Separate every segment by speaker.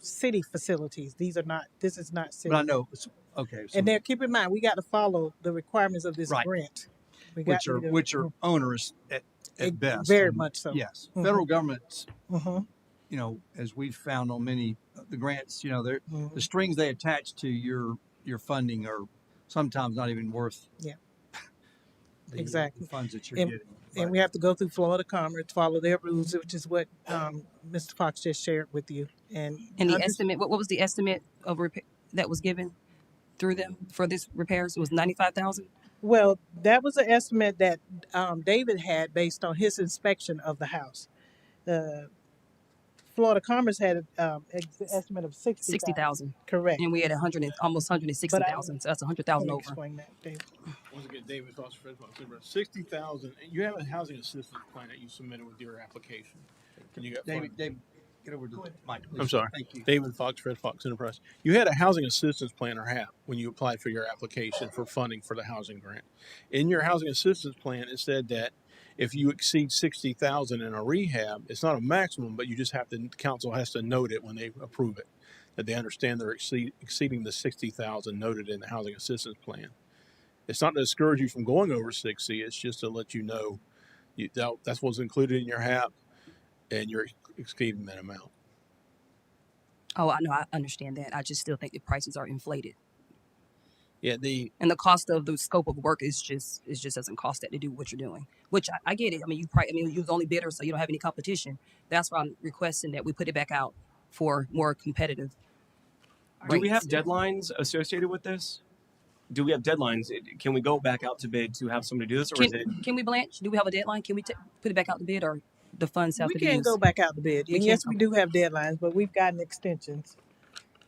Speaker 1: city facilities. These are not, this is not
Speaker 2: But I
Speaker 1: city.
Speaker 2: know, it's- okay, so,
Speaker 1: And then keep in mind, we got to follow the requirements of this
Speaker 2: Right.
Speaker 1: grant. We got
Speaker 2: which are,
Speaker 1: we do-
Speaker 2: which are onerous at,
Speaker 1: It-
Speaker 2: at best.
Speaker 1: Very
Speaker 2: and
Speaker 1: much so.
Speaker 2: Yes,
Speaker 1: Mhm.
Speaker 2: federal government's,
Speaker 1: Mhm,
Speaker 2: you know, as we've found on many, of the grants, you know, they're, the
Speaker 1: mhm.
Speaker 2: strings they attach to your, your funding are sometimes not even worth.
Speaker 1: Yeah.
Speaker 2: the- uh,
Speaker 1: Exactly.
Speaker 2: The funds that you're
Speaker 1: And-
Speaker 2: getting.
Speaker 1: And
Speaker 2: Right.
Speaker 1: we have to go through Florida Commerce, follow their rules, which is what, um, Mr. Fox just shared with you and.
Speaker 3: And the
Speaker 1: under-
Speaker 3: estimate, what, what was the estimate of repair that was given through them for this repairs? It was ninety-five thousand?
Speaker 1: Well, that was an estimate that um, David had based on his inspection of the house. The Florida Commerce had um, an estimate of sixty
Speaker 3: Sixty
Speaker 1: thousand.
Speaker 3: thousand.
Speaker 1: Correct.
Speaker 3: And we had a hundred and, almost hundred and sixty thousand, so that's a hundred
Speaker 1: Can
Speaker 3: thousand
Speaker 1: you
Speaker 3: over.
Speaker 1: explain that, David?
Speaker 4: Once again, David Foster, Fred Foster, sixty thousand, and you have a housing assistance plan that you submitted with your application. And you got
Speaker 2: David,
Speaker 4: funded.
Speaker 2: David, get over to the mic, please.
Speaker 4: I'm sorry.
Speaker 2: Thank you.
Speaker 4: David Fox, Fred Fox Enterprise. You had a housing assistance plan or HAP when you applied for your application for funding for the housing grant. In your housing assistance plan, it said that if you exceed sixty thousand in a rehab, it's not a maximum, but you just have to, the council has to note it when they approve it. That they understand they're exceed, exceeding the sixty thousand noted in the housing assistance plan. It's not to discourage you from going over sixty, it's just to let you know you, that, that's what's included in your HAP and you're exceeding that amount.
Speaker 3: Oh, I know, I understand that. I just still think the prices are inflated.
Speaker 4: Yeah, the,
Speaker 3: And the cost of the scope of work is just, it just doesn't cost that to do what you're doing, which I, I get it. I mean, you probably, I mean, you was only bidder, so you don't have any competition. That's why I'm requesting that we put it back out for more competitive
Speaker 5: Do we have
Speaker 3: rates.
Speaker 5: deadlines associated with this? Do we have deadlines? It- Can we go back out to bid to have somebody do this, or is it?
Speaker 3: Can, can we blanch? Do we have a deadline? Can we ta- put it back out the bid or the funds have
Speaker 1: We
Speaker 3: to be
Speaker 1: can't
Speaker 3: used?
Speaker 1: go back out to bid.
Speaker 3: We
Speaker 1: And yes,
Speaker 3: can't-
Speaker 1: we do have deadlines, but we've gotten extensions,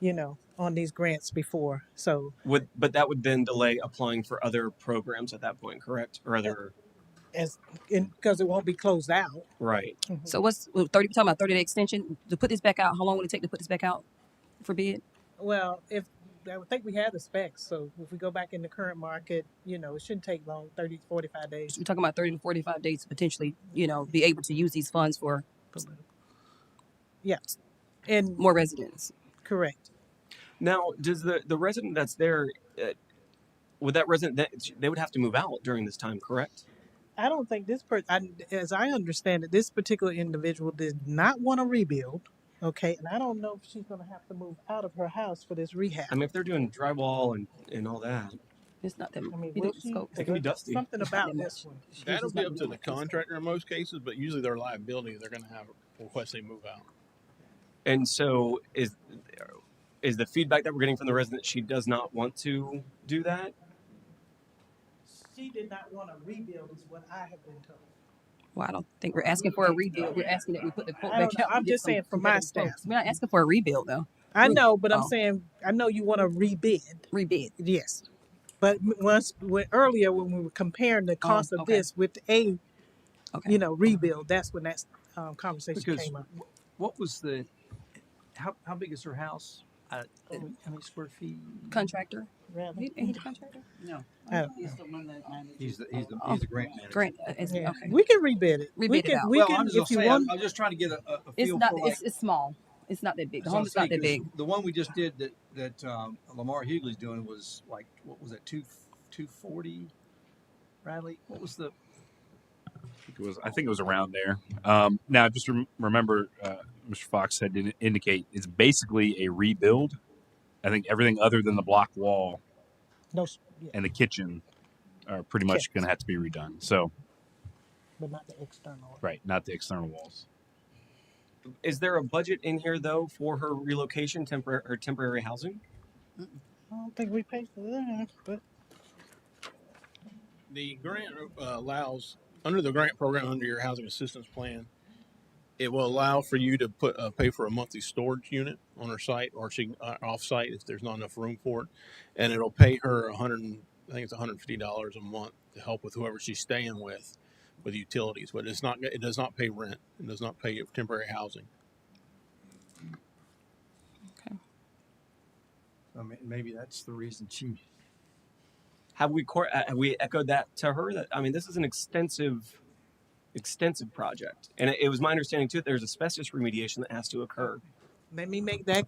Speaker 1: you know, on these grants before. So
Speaker 5: Would but that would then delay applying for other programs at that point, correct? Or other
Speaker 1: as, because it won't be closed out.
Speaker 5: right?
Speaker 1: Mhm.
Speaker 3: So what's well, thirty? Talking about thirty day extension to put this back out. How long would it take to put this back out for bid?
Speaker 1: Well, if, I would think we have the specs. So if we go back in the current market, you know, it shouldn't take long, 30, 45 days.
Speaker 3: We're talking about thirty to forty five days to potentially, you know, be able to use these funds for
Speaker 1: Yeah. And
Speaker 3: more residents.
Speaker 1: correct.
Speaker 5: Now, does the the resident that's there? Uh, would that resident that they would have to move out during this time, correct?
Speaker 1: I don't think this person, as I understand it, this particular individual did not want to rebuild. Okay. And I don't know if she's going to have to move out of her house for this rehab.
Speaker 5: I mean, if they're doing drywall and and all that,
Speaker 3: It's not that.
Speaker 1: I mean,
Speaker 3: you
Speaker 1: will
Speaker 3: think
Speaker 1: she?
Speaker 3: scope-
Speaker 5: It can be dusty.
Speaker 1: Something about
Speaker 3: that
Speaker 1: this one.
Speaker 3: much.
Speaker 4: That'll
Speaker 3: It's
Speaker 4: be
Speaker 3: not
Speaker 4: up to the
Speaker 3: much.
Speaker 4: contractor in most cases, but usually their liability, they're gonna have request they move out.
Speaker 5: and so is is the feedback that we're getting from the resident she does not want to do that?
Speaker 1: She did not want to rebuild, is what I have been told.
Speaker 3: Well, I don't think we're asking for a rebuild. We're asking that we put the quote
Speaker 1: I
Speaker 3: back
Speaker 1: don't know.
Speaker 3: out. and
Speaker 1: I'm
Speaker 3: get
Speaker 1: just
Speaker 3: some
Speaker 1: saying from my
Speaker 3: competitive quotes.
Speaker 1: stance.
Speaker 3: We're not asking for a rebuild though.
Speaker 1: I
Speaker 3: Re-
Speaker 1: know, but I'm
Speaker 3: oh.
Speaker 1: saying, I know you want to rebid.
Speaker 3: Rebid.
Speaker 1: Yes. But m- once, when, earlier when we were comparing the cost of
Speaker 3: okay.
Speaker 1: this with a,
Speaker 3: Okay.
Speaker 1: you know, rebuild, that's when that um, conversation
Speaker 2: Because-
Speaker 1: came up.
Speaker 2: What was the, how, how big is her house? Uh,
Speaker 1: Oh.
Speaker 2: how many square feet?
Speaker 3: contractor.
Speaker 1: Really?
Speaker 3: He, he the contractor.
Speaker 6: No.
Speaker 1: I don't
Speaker 6: He's the one that manages.
Speaker 2: He's the, he's the,
Speaker 3: Oh.
Speaker 2: he's the grant manager.
Speaker 3: Grant. uh, is-
Speaker 1: Yeah.
Speaker 3: Okay.
Speaker 1: We can rebid it. we
Speaker 3: Rebid it
Speaker 1: can,
Speaker 3: out.
Speaker 1: we
Speaker 2: well,
Speaker 1: can,
Speaker 2: I'm
Speaker 1: if
Speaker 2: just
Speaker 1: you
Speaker 2: saying,
Speaker 1: want,
Speaker 2: I'm just trying to get a, a a
Speaker 3: It's
Speaker 2: feel
Speaker 3: not.
Speaker 2: for like.
Speaker 3: It's, it's small. It's not that big. The
Speaker 2: So I'm
Speaker 3: home is not
Speaker 2: saying,
Speaker 3: that
Speaker 2: 'cause
Speaker 3: big.
Speaker 2: The one we just did that, that um, Lamar Hughley's doing was like, what was it, two, two forty? Riley, what was the,
Speaker 7: think it was I think it was around there. Um, now, just rem- remember, uh, Mr. Fox had to indicate it's basically a rebuild. I think everything other than the block wall
Speaker 1: no, s- yeah,
Speaker 7: and the kitchen are pretty much going to have to be redone. So,
Speaker 1: but not the external.
Speaker 7: right, not the external walls.
Speaker 5: Is there a budget in here though for her relocation, temporary her temporary housing?
Speaker 1: I don't think we paid for that, but
Speaker 4: The grant uh, allows, under the grant program, under your housing assistance plan, it will allow for you to put, uh, pay for a monthly storage unit on her site or she, can, uh, off-site if there's not enough room for it. And it'll pay her a hundred, and- I think it's hundred and fifty dollars a month to help with whoever she's staying with, with utilities, but it's not, it does not pay rent. It does not pay temporary housing.
Speaker 2: I mean, Oh, maybe that's the reason she,
Speaker 5: Have we cor- uh, have we echoed that to her? That I mean, this is an extensive, extensive project, and it, it was my understanding too that there's asbestos remediation that has to occur.
Speaker 1: let me make that